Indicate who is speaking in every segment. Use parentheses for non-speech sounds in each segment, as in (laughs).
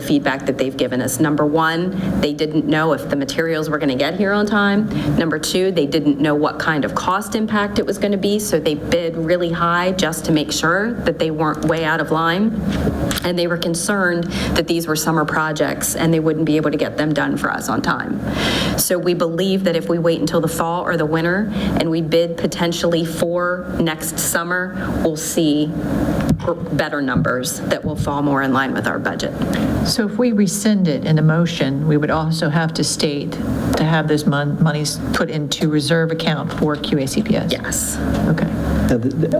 Speaker 1: the feedback that they've given us. Number one, they didn't know if the materials were going to get here on time. Number two, they didn't know what kind of cost impact it was going to be, so they bid really high just to make sure that they weren't way out of line. And they were concerned that these were summer projects and they wouldn't be able to get them done for us on time. So we believe that if we wait until the fall or the winter and we bid potentially for next summer, we'll see better numbers that will fall more in line with our budget.
Speaker 2: So if we rescind it in a motion, we would also have to state to have those mon- monies put into reserve account for QACPS?
Speaker 1: Yes,
Speaker 2: Okay.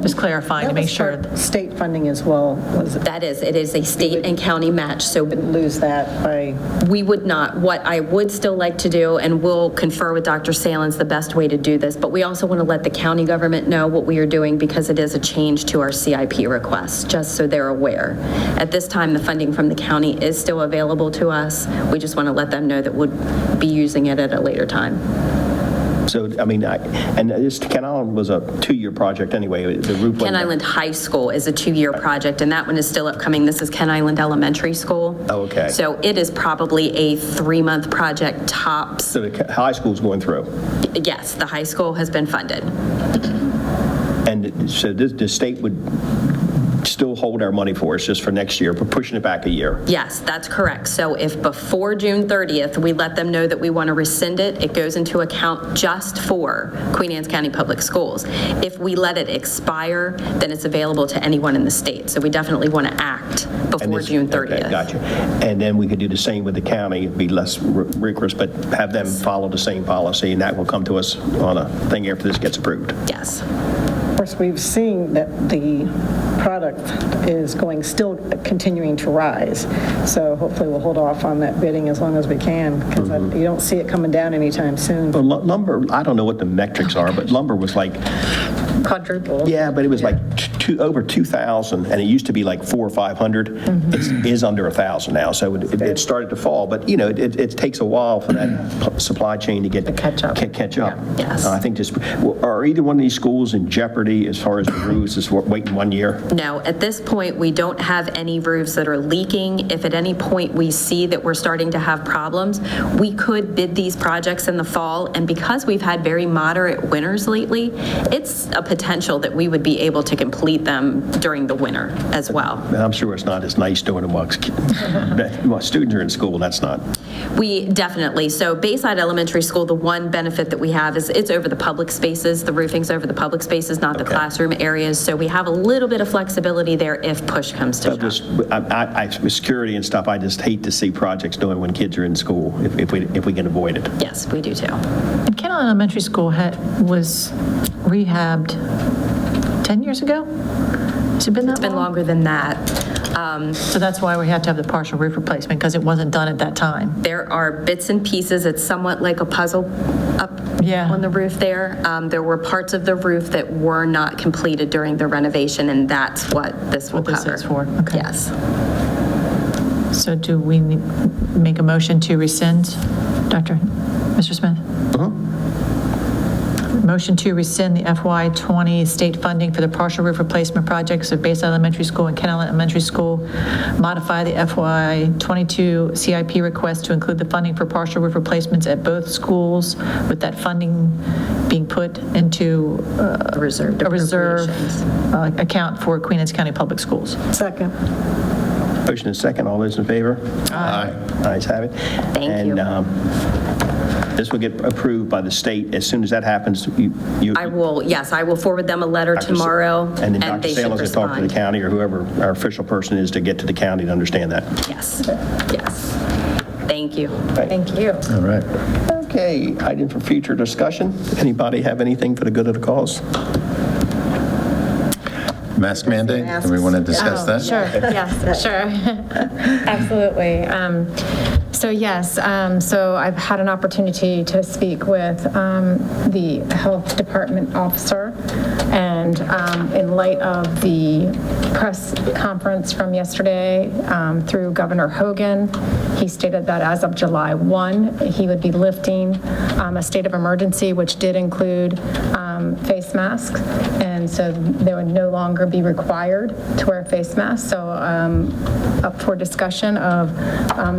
Speaker 2: Just clarifying to
Speaker 3: That
Speaker 2: make
Speaker 3: was
Speaker 2: sure.
Speaker 3: part- State funding as well, was it,
Speaker 1: that is, it is a state and county match, so
Speaker 3: lose that by,
Speaker 1: we would not, what I would still like to do, and we'll confer with Dr. Salins the best way to do this, but we also want to let the county government know what we are doing because it is a change to our CIP request, just so they're aware. At this time, the funding from the county is still available to us. We just want to let them know that we'll be using it at a later time.
Speaker 4: So, I mean, I- and this, Ken Island was a two-year project anyway, the roof.
Speaker 1: Ken Island High School is a two-year project, and that one is still upcoming. This is Ken Island Elementary School.
Speaker 4: Oh, okay.
Speaker 1: So it is probably a three-month project tops.
Speaker 4: So the ca- high school's going through.
Speaker 1: Yes, the high school has been funded.
Speaker 4: And so this, the state would still hold our money for us just for next year, but pushing it back a year.
Speaker 1: Yes, that's correct. So if before June 30th, we let them know that we want to rescind it, it goes into account just for Queen Anne's County Public Schools. If we let it expire, then it's available to anyone in the state. So we definitely want to act
Speaker 4: And
Speaker 1: before
Speaker 4: this-
Speaker 1: June
Speaker 4: Okay,
Speaker 1: 30th.
Speaker 4: Gotcha. And then we could do the same with the county, be less ri- rigorous, but have them follow the same policy, and that will come to us on a thing after this gets approved.
Speaker 1: Yes.
Speaker 3: of course, we've seen that the product is going, still continuing to rise. So hopefully we'll hold off on that bidding as long as we can, because you don't see it coming down anytime soon.
Speaker 4: But lu- lumber, I don't know what the metrics are, but lumber was like,
Speaker 3: Quadruple.
Speaker 4: yeah, but it was like t- two, over 2,000, and it used to be like four or 500. It is under 1,000 now, so it- it it started to fall, but, you know, it, it takes a while for that p- supply chain to get. To
Speaker 2: catch up.
Speaker 4: Catch up.
Speaker 1: Yes.
Speaker 4: Uh, I think this, well, are either one of these schools in jeopardy as far as the rules, is wa- waiting one year?
Speaker 1: No, at this point, we don't have any roofs that are leaking. If at any point we see that we're starting to have problems, we could bid these projects in the fall. And because we've had very moderate winters lately, it's a potential that we would be able to complete them during the winter as well.
Speaker 4: And I'm sure it's not as nice doing it while (laughs) that- while students are in school, that's not.
Speaker 1: We definitely, so Bayside Elementary School, the one benefit that we have is it's over the public spaces. The roofing's over the public spaces, not the
Speaker 4: Okay.
Speaker 1: classroom areas. So we have a little bit of flexibility there if push comes to shove.
Speaker 4: But just, I- I, I, with security and stuff, I just hate to see projects doing when kids are in school, if if we, if we can avoid it.
Speaker 1: Yes, we do too.
Speaker 2: And Ken Island Elementary School had, was rehabbed 10 years ago? Has it been that long?
Speaker 1: It's been longer than that. Um,
Speaker 2: So that's why we had to have the partial roof replacement, because it wasn't done at that time.
Speaker 1: There are bits and pieces, it's somewhat like a puzzle up
Speaker 2: Yeah.
Speaker 1: on the roof there. Um, There were parts of the roof that were not completed during the renovation, and that's what this will
Speaker 2: What this
Speaker 1: cover.
Speaker 2: is for, okay.
Speaker 1: Yes.
Speaker 2: So do we ne- make a motion to rescind, Dr., Mr. Smith? Motion to rescind the FY '20 state funding for the partial roof replacement projects of Bayside Elementary School and Ken Island Elementary School. Modify the FY '22 CIP request to include the funding for partial roof replacements at both schools, with that funding being put into uh,
Speaker 1: Reserved
Speaker 2: a reserve
Speaker 1: appropriations.
Speaker 2: uh, account for Queen Anne's County Public Schools.
Speaker 3: Second.
Speaker 4: Motion and second, all those in favor? Aye. Ayes have it.
Speaker 1: Thank
Speaker 4: And
Speaker 1: you.
Speaker 4: um, this will get approved by the state. As soon as that happens, you. you-
Speaker 1: I will, yes, I will forward them a letter
Speaker 4: Dr. Sa-
Speaker 1: tomorrow,
Speaker 4: And then
Speaker 1: and
Speaker 4: Dr.
Speaker 1: they should
Speaker 4: Salins will talk to the
Speaker 1: respond.
Speaker 4: county or whoever our official person is to get to the county to understand that.
Speaker 1: Yes, yes. Thank you.
Speaker 4: Thank
Speaker 1: you.
Speaker 5: All right.
Speaker 4: Okay, item for future discussion. Anybody have anything for the good of the cause?
Speaker 5: Mask mandate, do we want to discuss that?
Speaker 6: Sure, yes, sure. (laughs) Absolutely. Um, So yes, um, so I've had an opportunity to speak with um, the Health Department officer, and And um, in light of the press conference from yesterday um, through Governor Hogan, he stated that as of July 1, he would be lifting um, a state of emergency, which did include um, face masks. And so they would no longer be required to wear a face mask. So um, up for discussion of um,